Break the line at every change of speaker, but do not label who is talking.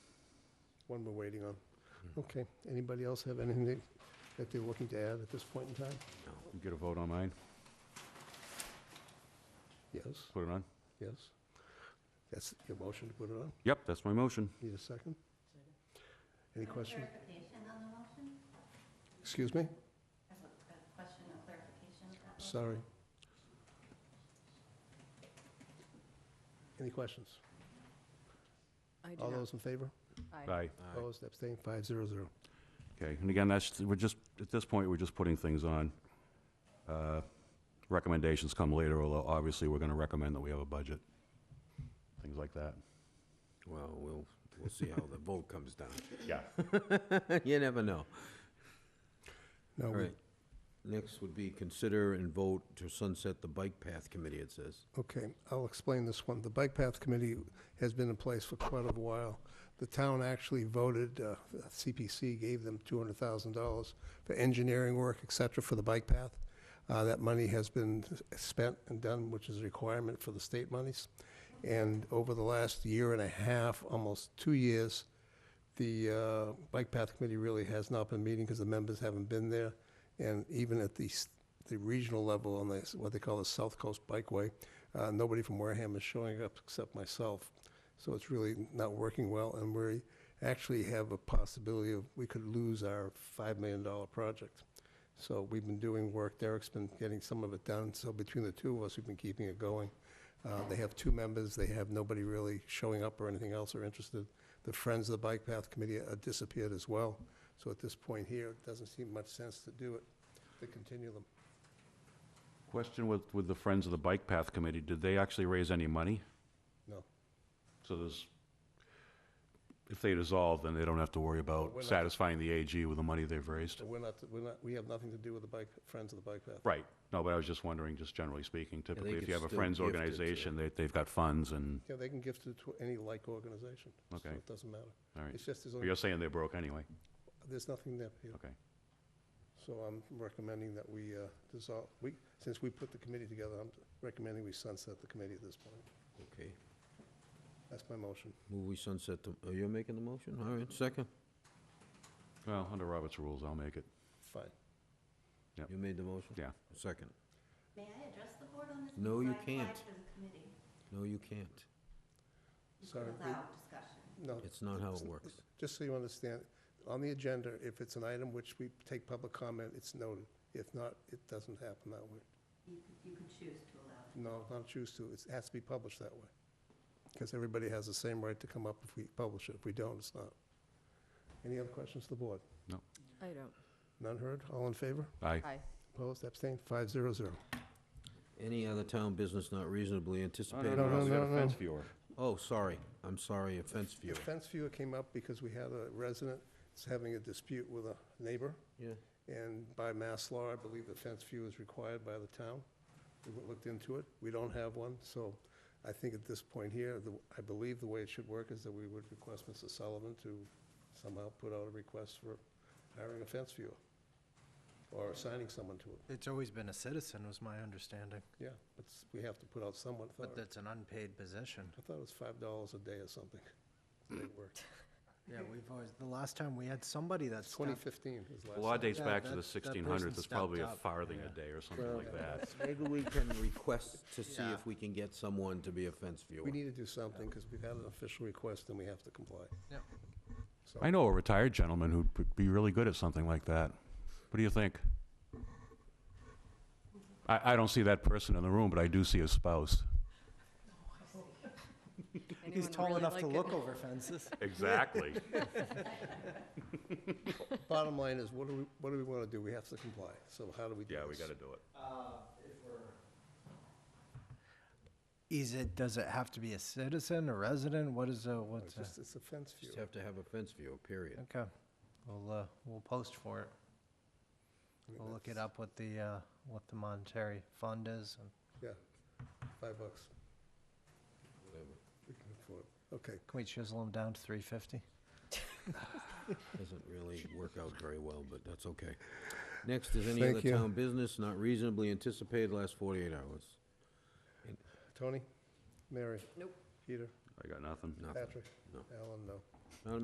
one we're waiting on. Okay, anybody else have anything that- that they're looking to add at this point in time?
You get a vote on mine,
Yes,
put it on?
yes. That's your motion to put it on?
Yep, that's my motion.
Need a second? Any questions?
Clarification on the motion?
Excuse me?
That's a a question of clarification. of that motion.
Sorry. Any questions?
I do
All
not.
those in favor?
Aye.
Aye.
Opposed, abstained, five zero zero.
Okay, and again, that's, we're just, at this point, we're just putting things on. Uh, Recommendations come later, although obviously, we're gonna recommend that we have a budget, things like that.
Well, we'll, we'll see how the vote comes down.
Yeah.
You never know.
No,
All
we-
right. Next would be consider and vote to sunset the bike path committee, it says.
Okay, I'll explain this one. The Bike Path Committee has been in place for quite a while. The town actually voted, uh, CPC gave them $200,000 for engineering work, et cetera, for the bike path. Uh, That money has been spent and done, which is a requirement for the state monies. And over the last year and a half, almost two years, the uh, Bike Path Committee really has not been meeting because the members haven't been there. And even at the, s- the regional level on the, what they call the South Coast Bikeway, uh, nobody from Wareham is showing up except myself. So it's really not working well, and we actually have a possibility of, we could lose our $5 million project. So we've been doing work, Derek's been getting some of it done, so between the two of us, we've been keeping it going. Uh, They have two members, they have nobody really showing up or anything else or interested. The Friends of the Bike Path Committee uh, disappeared as well, so at this point here, it doesn't seem much sense to do it, to continue them.
Question with, with the Friends of the Bike Path Committee, did they actually raise any money?
No.
So there's, if they dissolve, then they don't have to worry
we're
about
not-
satisfying the AG with the money they've raised?
So we're not, we're not, we have nothing to do with the Bike, Friends of the Bike Path.
Right, no, but I was just wondering, just generally speaking, typically, if
could
you have a
still
Friends
gift it to-
organization, they, they've got funds and,
Yeah, they can gift it to any like organization. So
Okay.
it doesn't matter.
all right.
It's just, there's,
But
only-
Oh, You're saying they're broke anyway?
there's nothing there. Peter.
Okay.
So I'm recommending that we uh, dissolve, we, since we put the committee together, I'm recommending we sunset the committee at this point.
Okay.
That's my motion.
Move we sunset the, are you making the motion? All right, second.
Well, under Robert's rules, I'll make it.
Fine.
You made the motion?
Yeah.
Second.
May I address the board on this?
No, you
Because I applied
can't.
for the committee.
No, you can't.
You
Sorry,
can
we-
allow discussion.
No,
It's not how it works.
just so you understand, on the agenda, if it's an item which we take public comment, it's noted. If not, it doesn't happen that way.
You could, you could choose to allow. it.
No, not choose to, it has to be published that way. Because everybody has the same right to come up if we publish it. If we don't, it's not. Any other questions to the board?
I don't.
None heard? All in favor?
Aye.
Aye.
Opposed, abstained, five zero zero.
Any other town business not reasonably anticipated?
no, no,
We got a
no.
fence viewer.
Oh, sorry. I'm sorry, offense
The
viewer.
fence viewer came up because we had a resident that's having a dispute with a neighbor,
Yeah.
and by mass law, I believe the fence view is required by the town. We looked into it, we don't have one, so I think at this point here, the- I believe the way it should work is that we would request Mr. Sullivan to somehow put out a request for hiring a fence viewer, or assigning someone to it,
It's always been a citizen, was my understanding,
yeah, but s- we have to put out someone for
but
it.
that's an unpaid position.
I thought it was five dollars a day or something. It worked.
Yeah, we've always, the last time we had somebody that
Twenty
stepped.
fifteen was last.
The law
time.
dates
Yeah,
back to
that-
the
that
sixteen
person
hundreds, it's probably a
stepped up,
farthing a
yeah.
day or something like that.
Maybe we can request to see
Yeah.
if we can get someone to be a fence viewer.
We need to do something, because we've had an official request, and we have to comply.
Yep.
So,
I know a retired gentleman who'd p- be really good at something like that. What do you think? I, I don't see that person in the room, but I do see his spouse.
He's
Anyone
tall
really
enough
like
to
it?
look over fences.
Exactly.
Bottom line is, what do we, what do we want to do? We have to comply, so how do we do this?
Yeah, we gotta do it.
Uh, Is it, does it have to be a citizen, a resident? What is, a what's,
It's
a-
just, it's a fence view.
Just have to have a fence viewer, period.
okay, we'll, uh, we'll post for it.
I mean,
We'll look it
that's-
up what the, uh, what the monetary fund is. and
Five bucks,
Whatever.
we can afford it. Okay,
Can we chisel them down to three fifty?
Doesn't really work out very well, but that's okay. Next is any
Thank
other
you.
town business not reasonably anticipated last 48 hours.
Tony? Mary?
Nope.
Peter?
I got nothing.
Nothing.
Patrick?
No.
Alan, no.